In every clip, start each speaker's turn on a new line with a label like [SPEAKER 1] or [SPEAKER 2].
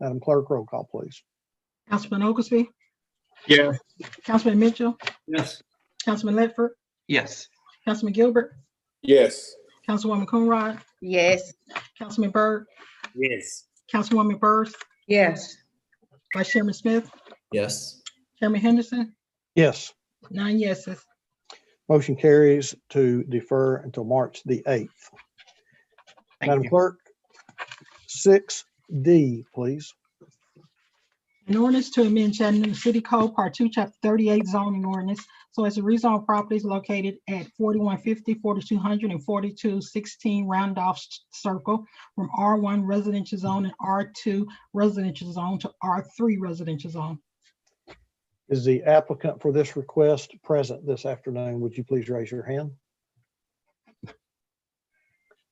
[SPEAKER 1] Madam Clerk, roll call, please.
[SPEAKER 2] Councilman Oglesby,
[SPEAKER 3] Yes.
[SPEAKER 2] Councilman Mitchell,
[SPEAKER 3] Yes.
[SPEAKER 2] Councilman Ledford,
[SPEAKER 4] Yes.
[SPEAKER 2] Councilman Gilbert,
[SPEAKER 5] Yes.
[SPEAKER 2] Councilwoman Coonrod,
[SPEAKER 6] Yes.
[SPEAKER 2] Councilman Byrd,
[SPEAKER 3] Yes.
[SPEAKER 2] Councilwoman Byrd,
[SPEAKER 6] Yes.
[SPEAKER 2] Vice Chairman Smith,
[SPEAKER 5] Yes.
[SPEAKER 2] Chairman Henderson,
[SPEAKER 1] Yes,
[SPEAKER 2] nine yeses.
[SPEAKER 1] motion carries to defer until March the 8th.
[SPEAKER 4] Thank
[SPEAKER 1] Madam
[SPEAKER 4] you.
[SPEAKER 1] Clerk, 6D, please.
[SPEAKER 2] An ordinance to amend Chattanooga City Code, Part Two, Chapter Thirty-eight zoning ordinance, so as to rezone properties located at 4150, 4200, and forty-two sixteen Roundoff Circle from R one residential zone and R two residential zone to R three residential zone.
[SPEAKER 1] Is the applicant for this request present this afternoon? Would you please raise your hand?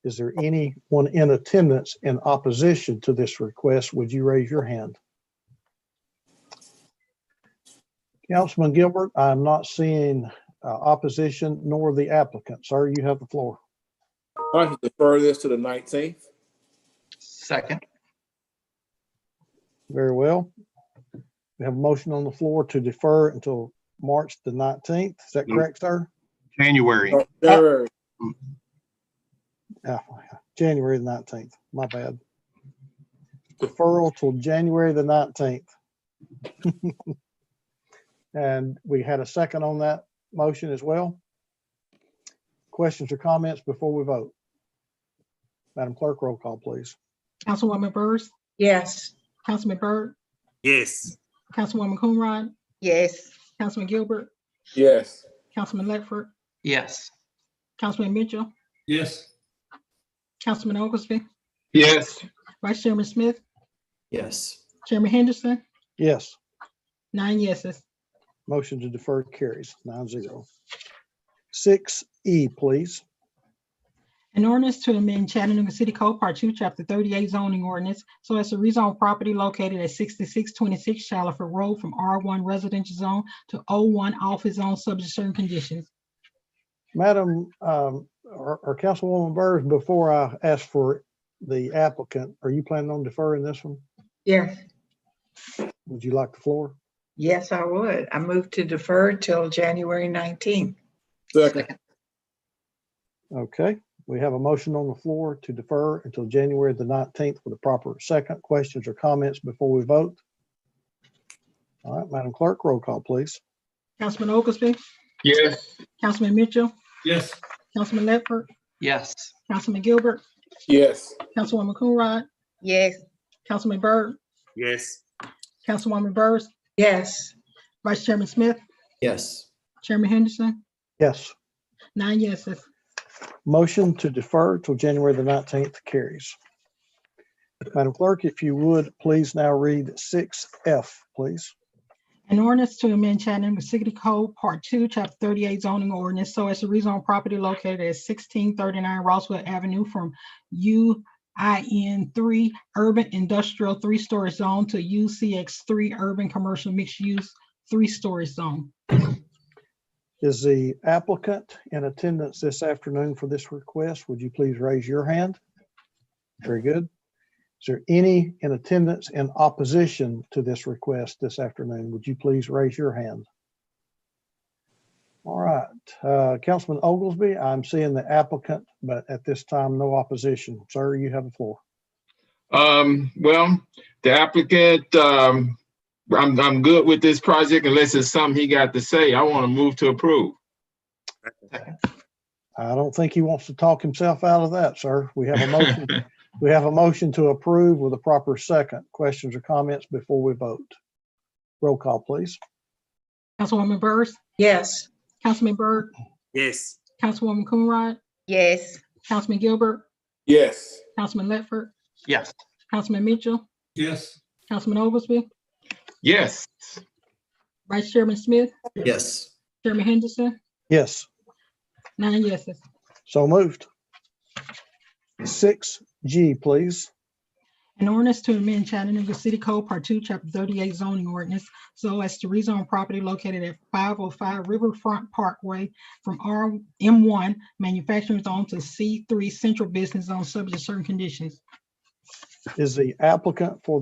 [SPEAKER 1] Is there anyone in attendance in opposition to this request? Would you raise your hand? Councilman Gilbert, I'm not seeing uh, opposition nor the applicant. Sir, you have the floor.
[SPEAKER 5] I'd like to defer this to the nineteenth.
[SPEAKER 4] Second.
[SPEAKER 1] Very well. We have a motion on the floor to defer until March the 19th. Is that
[SPEAKER 3] Mm.
[SPEAKER 1] correct, sir?
[SPEAKER 4] January.
[SPEAKER 5] January,
[SPEAKER 1] Yeah, Ah, January the nineteenth, my bad. Deferral till January the nineteenth. And we had a second on that motion as well. Questions or comments before we vote? Madam Clerk, roll call, please.
[SPEAKER 2] Councilwoman Byrd,
[SPEAKER 6] Yes.
[SPEAKER 2] Councilman Byrd,
[SPEAKER 3] Yes.
[SPEAKER 2] Councilwoman Coonrod,
[SPEAKER 6] Yes.
[SPEAKER 2] Councilman Gilbert,
[SPEAKER 5] yes.
[SPEAKER 2] Councilman Ledford,
[SPEAKER 4] Yes.
[SPEAKER 2] Councilman Mitchell,
[SPEAKER 3] Yes.
[SPEAKER 2] Councilman Oglesby,
[SPEAKER 3] Yes.
[SPEAKER 2] Vice Chairman Smith,
[SPEAKER 5] Yes.
[SPEAKER 2] Chairman Henderson,
[SPEAKER 1] Yes,
[SPEAKER 2] nine yeses.
[SPEAKER 1] motion to defer carries nine zero. Six E, please.
[SPEAKER 2] An ordinance to amend Chattanooga City Code Part Two, Chapter Thirty-eight zoning ordinance, so as to rezone property located at sixty-six twenty-six Shalaford Road from R one residential zone to O one office zone subject to certain conditions.
[SPEAKER 1] Madam, um, or, or Councilwoman Burrs, before I ask for the applicant, are you planning on deferring this one?
[SPEAKER 6] Yes.
[SPEAKER 1] Would you like the floor?
[SPEAKER 6] Yes, I would. I move to defer till January nineteenth.
[SPEAKER 5] Second,
[SPEAKER 1] Okay, we have a motion on the floor to defer until January the nineteenth with a proper second. Questions or comments before we vote? All right, Madam Clerk, roll call, please.
[SPEAKER 2] Councilman Oglesby,
[SPEAKER 3] Yes.
[SPEAKER 2] Councilman Mitchell,
[SPEAKER 3] Yes.
[SPEAKER 2] Councilman Ledford,
[SPEAKER 4] Yes.
[SPEAKER 2] Councilman Gilbert,
[SPEAKER 5] yes.
[SPEAKER 2] Councilwoman Coonrod,
[SPEAKER 6] Yes.
[SPEAKER 2] Councilman Byrd,
[SPEAKER 3] Yes.
[SPEAKER 2] Councilwoman Byrd,
[SPEAKER 6] Yes.
[SPEAKER 2] Vice Chairman Smith,
[SPEAKER 5] Yes.
[SPEAKER 2] Chairman Henderson,
[SPEAKER 1] Yes,
[SPEAKER 2] nine yeses.
[SPEAKER 1] motion to defer till January the nineteenth carries. Madam Clerk, if you would, please now read six F, please.
[SPEAKER 2] An ordinance to amend Chattanooga City Code, Part Two, Chapter Thirty-eight zoning ordinance, so as to rezone property located at sixteen thirty-nine Roswell Avenue from U I N three urban industrial three-story zone to U C X three urban commercial mixed-use three-story zone.
[SPEAKER 1] Is the applicant in attendance this afternoon for this request? Would you please raise your hand? Very good. Is there any in attendance in opposition to this request this afternoon? Would you please raise your hand? All right, uh, Councilman Oglesby, I'm seeing the applicant, but at this time, no opposition. Sir, you have the floor.
[SPEAKER 7] Um, well, the applicant, um, I'm, I'm good with this project unless it's something he got to say. I want to move to approve.
[SPEAKER 1] I don't think he wants to talk himself out of that, sir. We have a motion. We have a motion to approve with a proper second. Questions or comments before we vote? Roll call, please.
[SPEAKER 2] Councilwoman Byrd,
[SPEAKER 6] Yes.
[SPEAKER 2] Councilman Byrd,
[SPEAKER 3] Yes.
[SPEAKER 2] Councilwoman Coonrod,
[SPEAKER 6] Yes.
[SPEAKER 2] Councilman Gilbert,
[SPEAKER 5] Yes.
[SPEAKER 2] Councilman Ledford,
[SPEAKER 4] Yes.
[SPEAKER 2] Councilman Mitchell,
[SPEAKER 3] Yes.
[SPEAKER 2] Councilman Oglesby,
[SPEAKER 7] Yes,
[SPEAKER 2] Vice Chairman Smith,
[SPEAKER 5] Yes.
[SPEAKER 2] Chairman Henderson,
[SPEAKER 1] Yes,
[SPEAKER 2] nine yeses.
[SPEAKER 1] so moved. Six G, please.
[SPEAKER 2] An ordinance to amend Chattanooga City Code Part Two, Chapter Thirty-eight zoning ordinance so as to rezone property located at five oh five Riverfront Parkway from R M one manufacturing zone to C three central business zone subject to certain conditions.
[SPEAKER 1] Is the applicant for